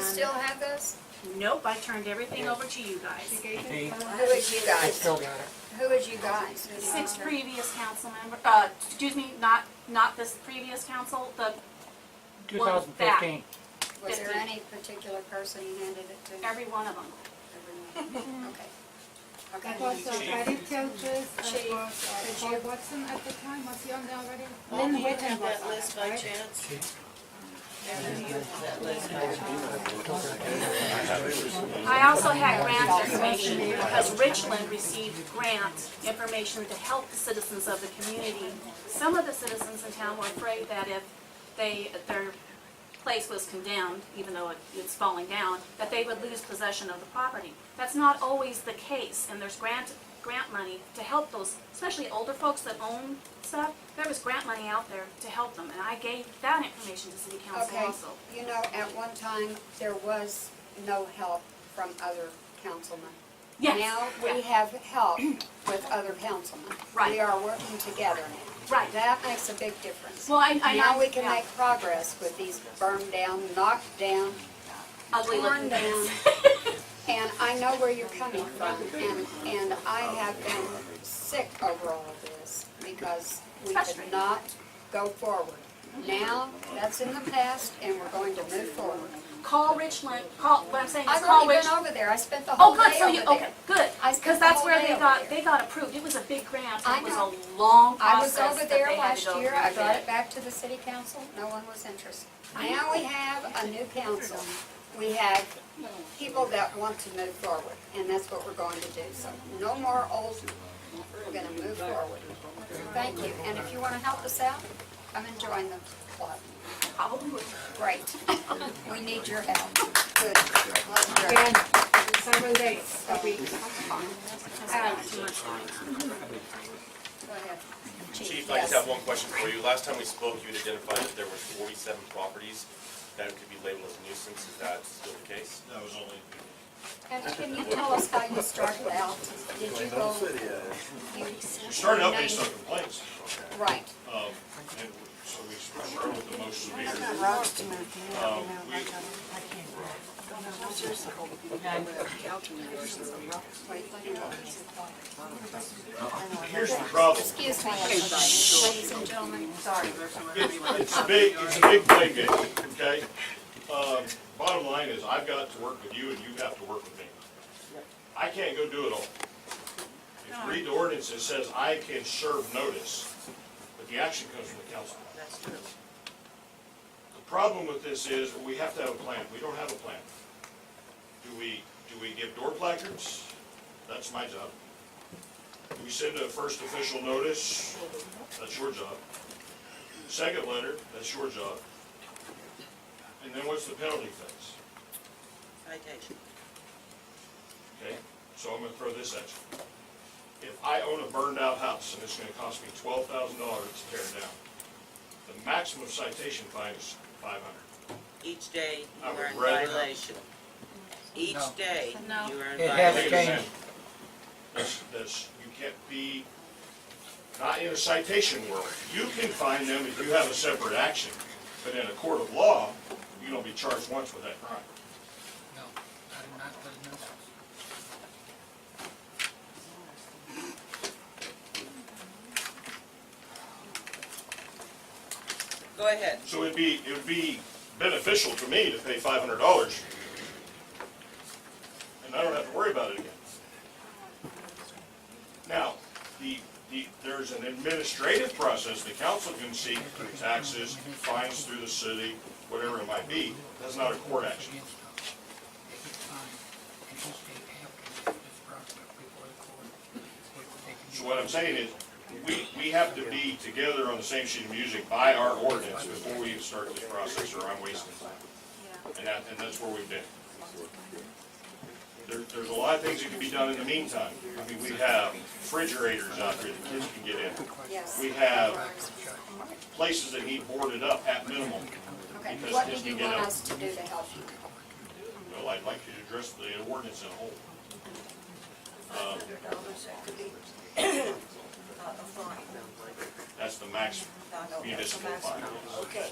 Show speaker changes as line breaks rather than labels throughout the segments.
still have those?
Nope, I turned everything over to you guys.
Hey,
Who is you
I
guys?
still got it.
Who is you guys?
Six previous council member, uh, excuse me, not, not this previous council, the,
Two
Well,
thousand fifteen.
Was there
fifty.
any particular person you handed it to?
every one of them.
Everyone. Okay.
That
Okay.
was uh, Patty Childress, that
Chief.
was uh,
Could you-
Paul Watson at the time, was he on there already?
Lynn,
Lynn
you
Whitten
have
was
that
on
list
it,
by
right?
chance? Mary, do you have that list by chance?
I also had grant information because Richland received grant information to help the citizens of the community. Some of the citizens in town were afraid that if they, their place was condemned, even though it- it's falling down, that they would lose possession of the property. That's not always the case, and there's grant, grant money to help those, especially older folks that own stuff. There was grant money out there to help them, and I gave that information to city council
Okay,
also.
you know, at one time, there was no help from other councilmen.
Yes,
Now, we
yeah.
have help with other councilmen. We
Right.
are working together now.
Right.
That makes a big difference.
Well, I, I.
Now we can
yeah.
make progress with these burned down, knocked down,
ugly
torn
looking
down.
things.
And I know where you're coming from, and, and I have been sick over all of this because we could
Frustrating.
not go forward. Now, that's in the past, and we're going to move forward.
Call Richland, call, what I'm saying is
I've
call
already
Rich.
been over there, I spent the whole
Oh, good,
day
so you,
over
okay,
there.
good,
I
because
spent the
that's
whole
where
day
they
over
got,
there.
they got approved, it was a big grant,
I
it was
know.
a long
I was
process
over
that they
there
had to
last
go
year, I
through.
brought it back to the city council, no one was interested. Now we have a new council, we have people that want to move forward, and that's what we're going to do, so no more old, we're gonna move forward. Thank you, and if you wanna help us out, come and join the club,
Probably would.
great, we need your help, good.
Again, several days a week.
Too much time.
Go ahead.
Chief, I just have
yes.
one question for you. Last time we spoke, you had identified that there were forty-seven properties that could be labeled as nuisance. Is that still the case?
That was only
And can you tell us how you started out? Did you go? You
We started out based on complaints,
Right.
um, and so we started with the motion to be here. Um, we, here's the problem,
Excuse me, ladies and gentlemen, sorry.
it's a big, it's a big play game, okay? Um, bottom line is, I've got to work with you and you have to work with me. I can't go do it all. If you read the ordinance, it says I can serve notice, but the action comes from the council.
That's true.
The problem with this is, we have to have a plan, we don't have a plan. Do we, do we give door placards? That's my job. Do we send a first official notice? That's your job. Second letter, that's your job. And then what's the penalty phase?
Citation.
Okay, so I'm gonna throw this at you. If I own a burned out house and it's gonna cost me twelve thousand dollars to tear it down, the maximum citation fine is five hundred.
Each day
I
you are in
would rather-
violation.
No.
Each day
No.
you are in
It has
Take
violation.
it
changed.
in. That's, that's, you can't be, not in a citation world. You can find them if you have a separate action, but in a court of law, you don't be charged once with that crime.
No, I did not let it know.
Go ahead.
So it'd be, it would be beneficial to me to pay five hundred dollars. And I don't have to worry about it again. Now, the, the, there's an administrative process, the council can seek taxes, fines through the city, whatever it might be, that's not a court action. So what I'm saying is, we, we have to be together on the same sheet of music by our ordinance before we even start this process, or I'm wasting time. And that, and that's where we've been. There, there's a lot of things that can be done in the meantime. I mean, we have refrigerators out there that kids can get in.
Yes.
We have places that need boarded up at minimum.
Okay,
because
what
kids
do you
can get
want
out.
us to do to help you?
Well, I'd like you to address the ordinance in whole. Um, That's the maximum municipal fine. yes.
Okay,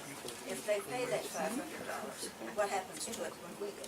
if they pay that five hundred dollars, what happens to it when we go?